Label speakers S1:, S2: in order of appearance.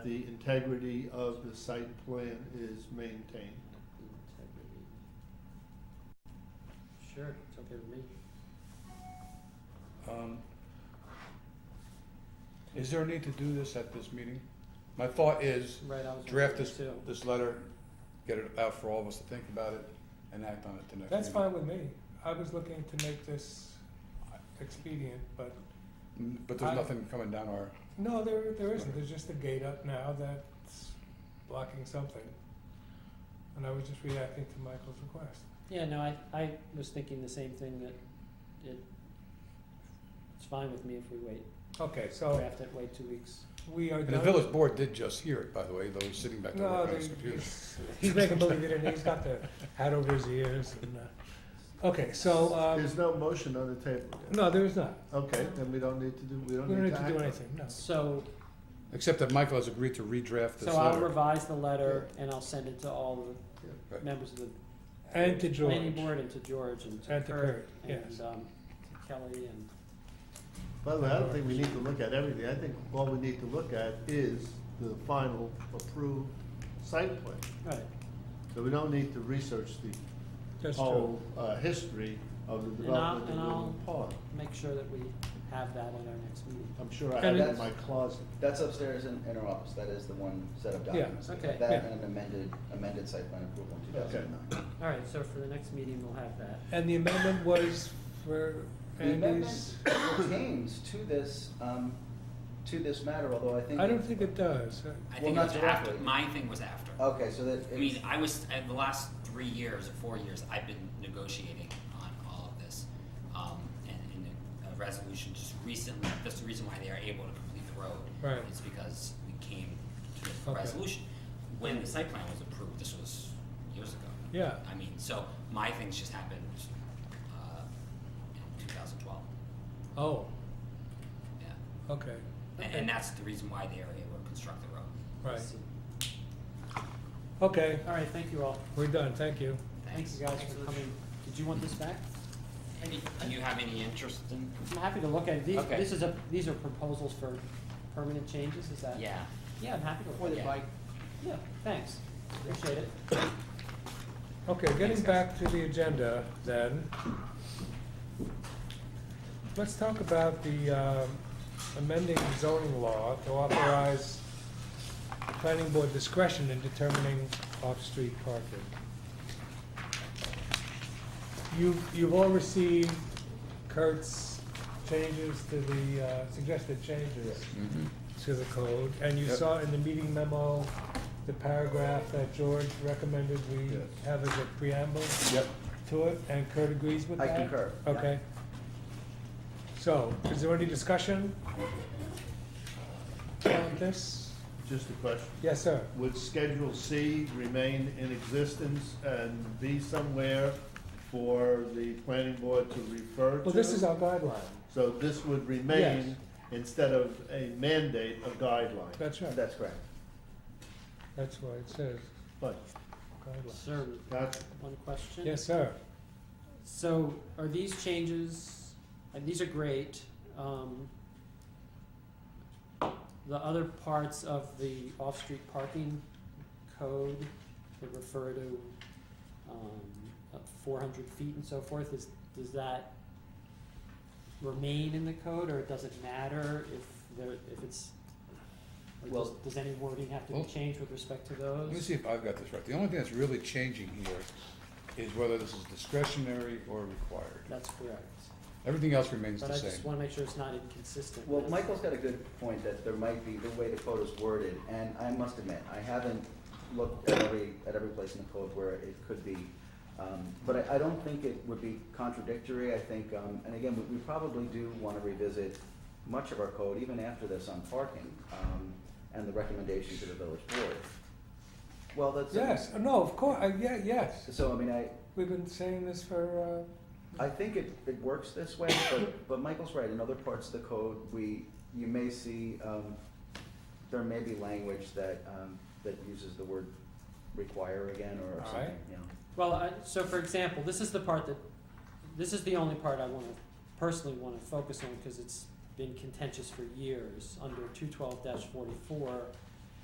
S1: the integrity of the site plan is maintained.
S2: Integrity. Sure, it's okay with me.
S3: Um, Is there a need to do this at this meeting? My thought is
S2: Right, I was.
S3: draft
S2: wondering
S3: this,
S2: too.
S3: this letter, get it out for all of us to think about it and act on it the next meeting.
S4: That's fine with me. I was looking to make this expedient, but
S3: Mm, But there's
S4: I-
S3: nothing coming down our,
S4: no, there, there isn't. There's just a gate up now that's blocking something. And I was just reacting to Michael's request.
S2: Yeah, no, I, I was thinking the same thing that it, it's fine with me if we wait,
S4: Okay, so
S2: draft it, wait two weeks.
S4: we are
S3: and the
S4: done.
S3: village board did just hear it, by the way, though he's sitting back there
S4: No,
S3: working on his
S4: they,
S3: computer.
S4: he's, he's making believe it, and he's got the hat over his ears and, uh, okay, so, um,
S1: There's no motion on the table.
S4: no, there is not.
S1: Okay, then we don't need to do, we don't
S4: We don't
S1: need
S4: need
S1: to
S4: to
S1: act.
S4: do
S1: on it.
S4: anything, no.
S2: So,
S3: Except that Michael has agreed to redraft this
S2: so I'll
S3: letter.
S2: revise the letter and I'll send it to all
S3: Yeah.
S2: the members of the.
S4: And to
S2: Planning
S4: George,
S2: board and to George and to
S4: and to
S2: Kurt
S4: Kurt, yes.
S2: and, um, to Kelly and,
S1: By the way, I don't think we need to look at everything. I think all we need to look at is the final approved site plan.
S2: right,
S1: So we don't need to research the
S4: That's
S3: Oh.
S4: true.
S1: whole, uh, history of the
S2: And I'll-
S1: development of
S2: and I'll-
S1: Woodland Pond.
S2: make sure that we have that at our next meeting.
S1: I'm sure I
S4: And
S1: have that in
S4: it's-
S1: my closet.
S5: That's upstairs in, in our office, that is the one set of
S4: Yeah,
S5: documents.
S2: okay,
S5: That
S4: yeah.
S5: and an amended, amended site plan approval in two thousand and nine.
S2: All right, so for the next meeting, we'll have that.
S4: And the amendment was for
S5: The amendment
S4: Andy's,
S5: pertains to this, um, to this matter, although I think.
S4: I don't think it does.
S6: I
S5: Well,
S6: think
S5: not Oh,
S6: it was after.
S5: directly.
S6: My thing was after.
S5: Okay, so that
S6: I mean,
S5: it's,
S6: I was in the last three years or four years, I've been negotiating on all of this, um, and, and a resolution just recently. That's the reason why they are able to complete the road.
S4: Right.
S6: It's because we came to a
S4: Okay.
S6: resolution when the site plan was approved. This was years ago.
S4: Yeah.
S6: I mean, so my things just happened uh, in 2012.
S4: Oh,
S6: Yeah.
S4: okay,
S6: And,
S2: Okay.
S6: and that's the reason why they are able to construct the road.
S4: right. Okay,
S2: All right, thank you all.
S4: we're done, thank you.
S2: Thank
S6: Thanks.
S2: you guys for coming. Did you want this back?
S6: Any, do you have any interest in?
S2: I'm happy to look at it. These,
S6: Okay.
S2: this is a, these are proposals for permanent changes, is that?
S6: Yeah.
S2: Yeah, I'm happy to
S5: Well,
S2: look at
S5: if
S2: it.
S5: I-
S2: Yeah, thanks. Appreciate it.
S4: Okay, getting back to the agenda then. Let's talk about the um, amending zoning law to authorize the planning board discretion in determining off-street parking. You, you've all received Kurt's changes to the, uh, suggested changes
S3: Mhm.
S4: to the code, and you
S3: Yep.
S4: saw in the meeting memo, the paragraph that George recommended we
S3: Yes.
S4: have as a preamble
S3: Yep,
S4: to it, and Kurt agrees with
S5: I
S4: that?
S5: concur, yeah.
S4: Okay. So, is there any discussion on this?
S1: Just a question.
S4: Yes, sir.
S1: Would Schedule C remain in existence and be somewhere for the planning board to refer to?
S4: Well, this is our guideline,
S1: So this would remain instead of a mandate, a guideline.
S4: that's right,
S5: that's correct.
S4: that's why it says
S1: But
S4: guideline.
S2: Sir,
S1: that's
S2: one question?
S4: Yes, sir.
S2: So are these changes, and these are great, um, the other parts of the off-street parking code that refer to, um, four hundred feet and so forth, is, does that remain in the code, or does it matter if there, if it's, or does,
S5: Well-
S2: does any wording have to be
S3: Well-
S2: changed with respect to
S3: let me
S2: those?
S3: see if I've got this right. The only thing that's really changing here is whether this is discretionary or required.
S2: That's correct,
S3: Everything else remains
S2: but
S3: the
S2: I
S3: same.
S2: just wanna make sure it's not inconsistent
S5: Well,
S2: with-
S5: Michael's got a good point that there might be, the way the code is worded, and I must admit, I haven't looked at every, at every place in the code where it could be. Um, but I, I don't think it would be contradictory, I think, um, and again, we, we probably do wanna revisit much of our code, even after this on parking, um, and the recommendation to the village board. Well, that's.
S4: Yes, no, of course, yeah, yes.
S5: So, I mean, I,
S4: We've been saying this for, uh,
S5: I think it, it works this way, but, but Michael's right, in other parts of the code, we, you may see, um, there may be language that, um, that uses the word require again or
S4: All
S5: something,
S4: right.
S5: you know.
S2: Well, I, so for example, this is the part that, this is the only part I wanna, personally wanna focus on, cause it's been contentious for years, under two twelve forty-four,